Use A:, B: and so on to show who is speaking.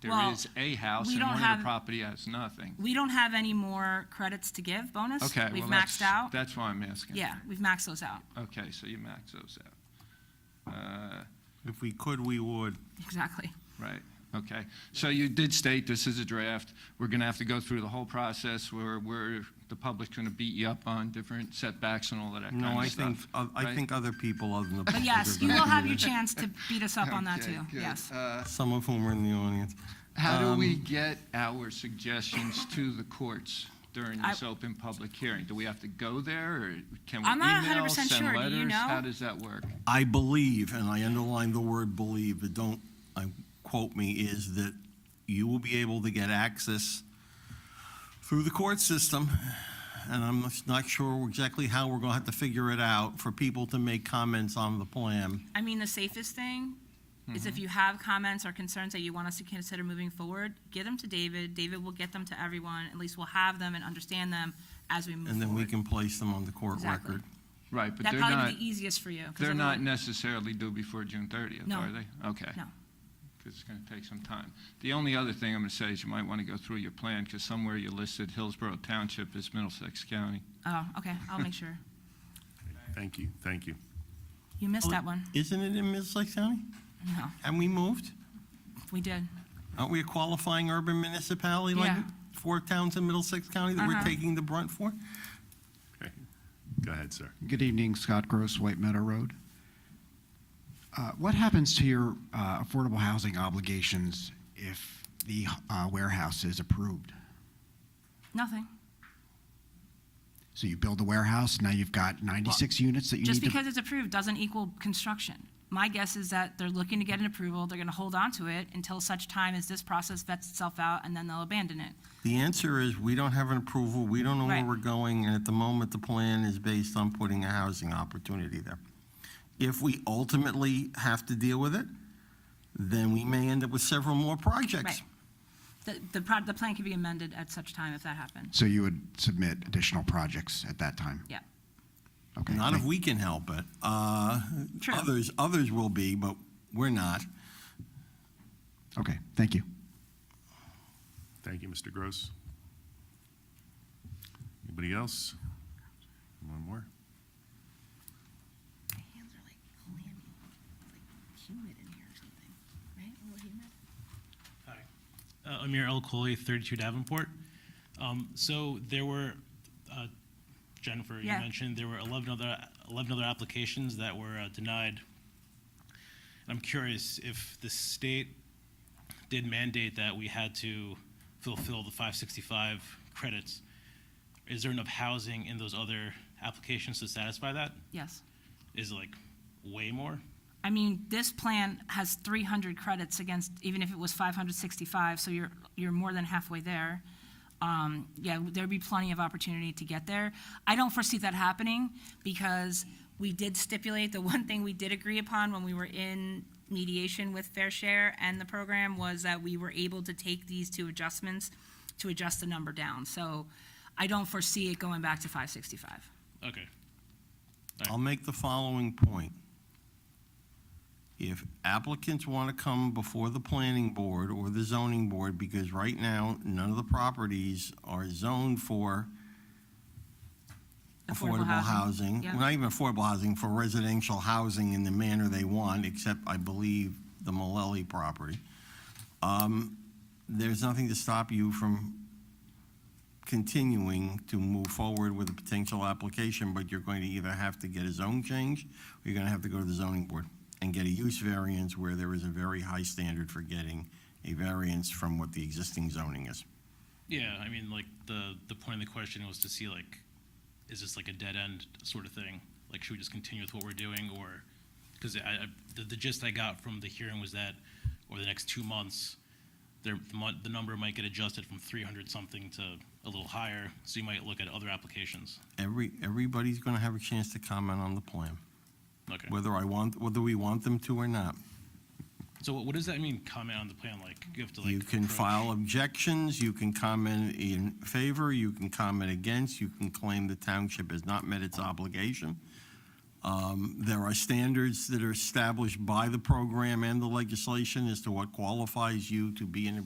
A: There
B: Well,
A: is a house
B: we
A: and
B: don't
A: one of
B: have-
A: the property has nothing.
B: We don't have any more credits to give bonus.
A: Okay,
B: We've
A: well, that's-
B: maxed out.
A: That's why I'm asking.
B: Yeah, we've maxed those out.
A: Okay, so you max those out. Uh,
C: If we could, we would.
B: Exactly.
A: Right, okay. So you did state this is a draft. We're going to have to go through the whole process where, where the public's going to beat you up on different setbacks and all of that kind
C: No, I
A: of
C: think,
A: stuff.
C: uh, I
A: right?
C: think other people other than the.
B: But yes, you will have your chance to beat us up on that
A: Okay,
B: too.
A: good.
B: Yes.
A: Uh,
C: Some of whom are in the audience.
A: How do we
C: Um,
A: get our suggestions to the courts during this open public hearing? Do we have to go there, or can we
B: I'm not
A: email,
B: 100%
A: send
B: sure. Do you
A: letters? How
B: know?
A: does that work?
C: I believe, and I underline the word believe, but don't, I, quote me, is that you will be able to get access through the court system, and I'm not sure exactly how we're gonna have to figure it out, for people to make comments on the plan.
B: I mean, the safest thing is
A: Mm-hmm.
B: if you have comments or concerns that you want us to consider moving forward, get them to David. David will get them to everyone. At least we'll have them and understand them as we move
C: And then we
B: forward.
C: can place them on the court
B: Exactly.
C: record.
A: Right, but
B: that
A: they're
B: probably
A: not,
B: be the easiest for you. 'cause
A: they're not
B: everyone-
A: necessarily due before June 30th,
B: No.
A: are they? Okay.
B: No.
A: Because it's going to take some time. The only other thing I'm going to say is you might want to go through your plan, because somewhere you listed Hillsborough Township as Middlesex County.
B: Oh, okay. I'll make sure.
D: Thank you, thank you.
B: You missed
A: Oh.
B: that one.
C: Isn't it in Middlesex County?
B: No,
C: Have we moved?
B: we did.
C: Aren't we a qualifying urban municipality like
B: Yeah.
C: four towns in Middlesex County that we're
B: Uh-huh.
C: taking the brunt for?
D: Okay. Go ahead, sir.
E: Good evening, Scott Gross, White Meadow Road. Uh, What happens to your uh, affordable housing obligations if the uh, warehouse is approved?
B: Nothing.
E: So you build the warehouse, now you've got 96 units that you
B: Just
E: need to...
B: because it's approved doesn't equal construction. My guess is that they're looking to get an approval, they're gonna hold on to it until such time as this process vets itself out, and then they'll abandon it.
C: The answer is, we don't have an approval, we don't know where
B: Right.
C: we're going, and at the moment, the plan is based on putting a housing opportunity there. If we ultimately have to deal with it, then we may end up with several more projects.
B: Right. The, the, pro- the plan could be amended at such time if that happened.
E: So you would submit additional projects at that time?
B: Yeah.
E: Okay,
C: Not if
E: thank-
C: we can help it. Uh,
B: True.
C: Others, others will be, but we're not.
E: Okay, thank you.
D: Thank you, Mr. Gross. Anybody else? One more?
F: My hands are like clammy, It's like humid in here or something, right? A little humid.
G: Hi. Uh, Amir El Khoury, 32 Davenport. Um, So there were, uh, Jennifer, you
B: Yeah.
G: mentioned, there were 11 other, 11 other applications that were uh, denied. I'm curious if the state did mandate that we had to fulfill the 565 credits. Is there enough housing in those other applications to satisfy that?
B: Yes.
G: Is it like way more?
B: I mean, this plan has three hundred credits against, even if it was five hundred sixty-five, so you're, you're more than halfway there. Um, yeah, there'd be plenty of opportunity to get there. I don't foresee that happening, because we did stipulate, the one thing we did agree upon when we were in mediation with Fair Share and the program was that we were able to take these two adjustments to adjust the number down, so I don't foresee it going back to five sixty-five.
G: Okay.
C: I'll make the following point. If applicants want to come before the planning board or the zoning board, because right now, none of the properties are zoned for affordable housing.
B: Yeah.
C: Not even affordable housing, for residential housing in the manner they want, except I believe the Malelli property. Um, There's nothing to stop you from continuing to move forward with a potential application, but you're going to either have to get a zone change, or you're going to have to go to the zoning board and get a use variance where there is a very high standard for getting a variance from what the existing zoning is.
G: Yeah, I mean, like the the point of the question was to see like, is this like a dead end sort of thing? Like, should we just continue with what we're doing, or because I, I the, the gist I got from the hearing was that over the next two months, there the, mon- the number might get adjusted from 300 something to a little higher, so you might look at other applications.
C: Every, everybody's going to have a chance to comment on the plan,
G: Okay.
C: whether I want, whether we want them to or not.
G: so what, what does that mean? Comment on the plan, like you have to like.
C: You can
G: approach-
C: file objections, you can comment in favor, you can comment against, you can claim the township has not met its obligation. Um, There are standards that are established by the program and the legislation as to what qualifies you to be in a